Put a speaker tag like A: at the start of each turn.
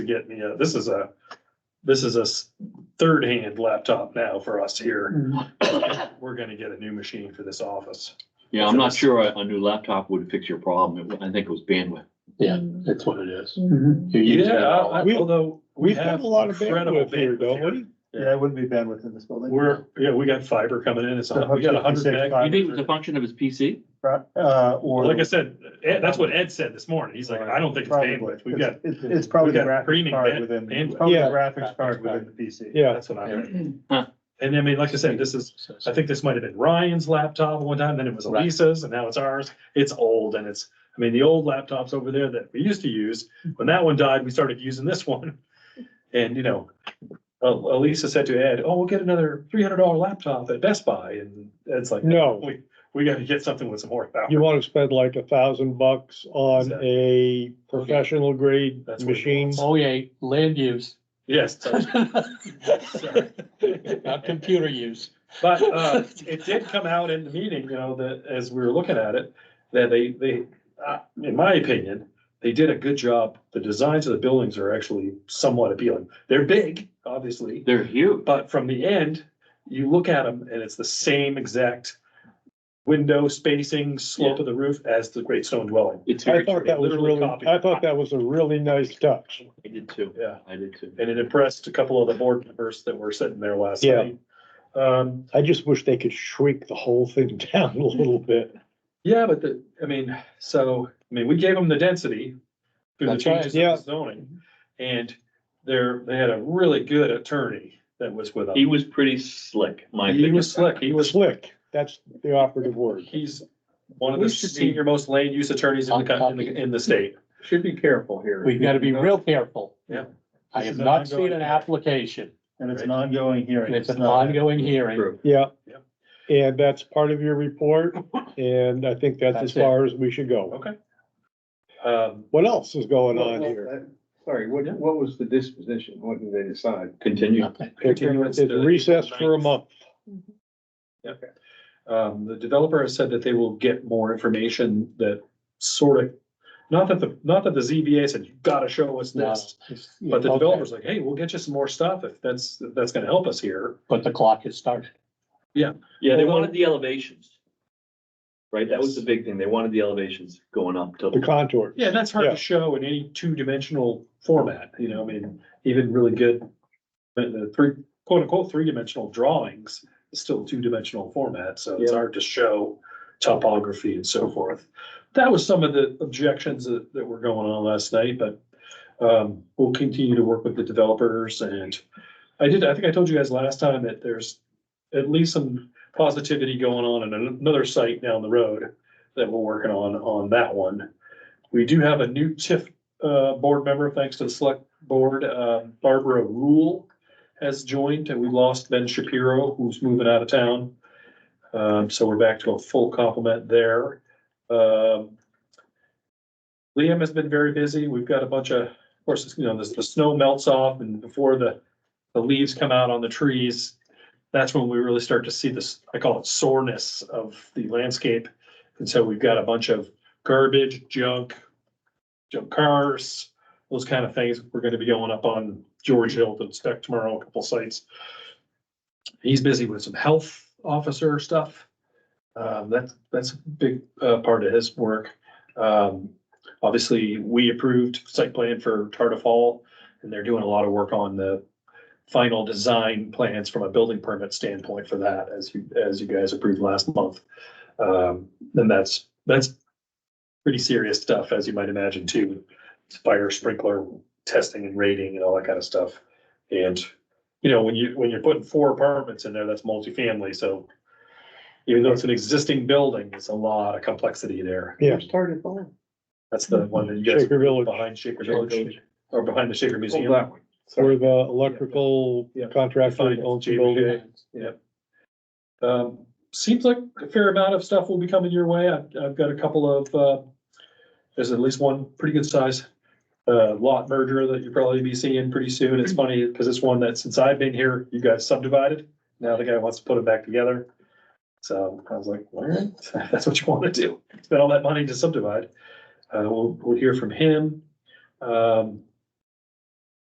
A: to get me a, this is a, this is a s- third-hand laptop now for us here. We're gonna get a new machine for this office.
B: Yeah, I'm not sure a, a new laptop would fix your problem. It wa- I think it was bandwidth.
C: Yeah, that's what it is.
D: Mhm.
C: You use that all.
A: I-
E: We-
A: although. we
E: We've got
A: have
E: a lot of
A: incredible
E: bandwidth here,
A: bandwidth
E: don't we?
C: Yeah, it wouldn't be bandwidth in this building.
A: We're, yeah, we got fiber coming in, it's, a hun- we got a hundred
C: 156
A: meg.
C: fiber.
B: You think it was a function of his PC?
C: Uh, or.
A: Like I said, Ed, that's what Ed said this morning, he's like, I don't think it's
C: Probably.
A: bandwidth, we've got,
C: It's, it's probably
A: we've
C: the
A: got
C: graphics
A: premium
C: card
A: band-
C: within, it's
A: bandwidth.
C: probably the
E: Yeah.
C: graphics card
E: Graphics
C: within
E: card.
C: the PC.
E: Yeah.
A: that's what I heard. And I mean, like I said, this is, I think this might have been Ryan's laptop at one time, then it was
C: Right.
A: Elisa's, and now it's ours. It's old and it's, I mean, the old laptops over there that we used to use, when that one died, we started using this one. And, you know, El- Elisa said to Ed, oh, we'll get another three hundred dollar laptop at Best Buy, and Ed's like,
E: No,
A: we, we gotta get something with some horsepower.
E: you wanna spend like a thousand bucks on a professional grade
A: That's what it
E: machine.
A: was.
C: Oh, yeah, land use.
A: Yes, sorry. Sorry.
C: Not computer use.
A: But uh, it did come out in the meeting, you know, that as we were looking at it, that they, they, uh, in my opinion, they did a good job. The designs of the buildings are actually somewhat appealing. They're big, obviously,
B: They're huge.
A: but from the end, you look at them and it's the same exact window spacing, slope of the roof as the Great Stone Dwelling.
B: It's
E: I
B: very
E: thought
B: true.
E: that was
A: Literally
E: really,
A: copied.
E: I thought that was a really nice touch.
B: I did too.
A: Yeah,
B: I did too.
A: and uh, it impressed a couple of the board members that were sitting there last
E: Yeah.
A: night. Um,
E: I just wish they could shrink the whole thing down a little bit.
A: Yeah, but the, I mean, so, I mean, we gave them the density through the
C: That's right,
A: changes
E: yeah.
A: of the zoning. And they're, they had a really good attorney that was with
B: He
A: them.
B: was pretty slick, my
A: He
B: opinion.
A: was slick, he was,
E: Slick, that's the operative word.
A: he's one of
C: We
A: the
C: should be-
A: senior most land use attorneys in the, co- in the, in the state.
B: Should be careful here.
C: We've got to be real careful.
A: Yeah.
C: I have not seen an application,
F: And it's an ongoing hearing.
C: and it's an
F: not-
C: ongoing hearing.
B: True.
E: Yeah.
A: Yep.
E: And that's part of your report, and I think that's as
C: That's it.
E: far as we should go.
A: Okay. Um,
E: What else is going
G: Well,
E: on
G: well,
E: here?
G: that- Sorry, what, what was the disposition? What did they decide?
B: Continue.
C: Nothing.
A: continuance
E: It's
A: to April
E: recessed for a
A: 9th.
E: month.
A: Um, the developer has said that they will get more information that sort of, not that the, not that the ZBA said, you gotta show us
C: No.
A: this. But the developer's like, hey, we'll get you some more stuff if that's, if that's gonna help us here.
C: But the clock has started.
B: Yeah, they
A: Although-
B: wanted the elevations. Right? That was the big thing. They wanted the elevations going up to.
E: The contour.
A: Yeah, and that's hard
E: Yeah.
A: to show in any two-dimensional format, you know, I mean, even really good, but the three, quote-unquote, three-dimensional drawings is still two-dimensional format, so it's
B: Yeah.
A: hard to show topography and so forth. That was some of the objections that, that were going on last night, but, um, we'll continue to work with the developers and I did, I think I told you guys last time that there's at least some positivity going on in another site down the road that we're working on, on that one. We do have a new TIF uh, board member, thanks to the select board. Uh, Barbara Rule has joined, and we lost Ben Shapiro, who's moving out of town. Um, So we're back to a full complement there. Um, Liam has been very busy. We've got a bunch of, of course, you know, the, the snow melts off and before the, the leaves come out on the trees, that's when we really start to see this, I call it soreness of the landscape. And so we've got a bunch of garbage, junk, junk cars, those kind of things. We're gonna be going up on George Hill to inspect tomorrow, a couple sites. He's busy with some health officer stuff. Um, that's, that's a big, uh, part of his work. Um, obviously, we approved site plan for Tardiff Hall, and they're doing a lot of work on the final design plans from a building permit standpoint for that, as you, as you guys approved last month. Um, and that's, that's pretty serious stuff, as you might imagine, too. It's Fire sprinkler testing and rating and all that kind of stuff. And, you know, when you, when you're putting four apartments in there, that's multifamily, so even though it's an existing building, it's a lot of complexity there.
E: Yeah.
G: Started by.
A: That's the one that you guys
E: Shaker Village,
A: behind Shaker
B: Shaker
A: Village,
B: Village.
A: or behind the Shaker Museum.
G: that one.
E: where the electrical
A: Yeah.
E: contractor
A: Fine,
E: owns the
A: JBJ.
E: building.
A: Um, seems like a fair amount of stuff will be coming your way. I've, I've got a couple of, uh, there's at least one pretty good size, uh, lot merger that you'll probably be seeing pretty soon. It's funny because it's one that since I've been here, you guys subdivided. Now the guy wants to put it back together. So I was like, all right, that's what you want to do. Spend all that money to subdivide. Uh, we'll, we'll hear from him. Um,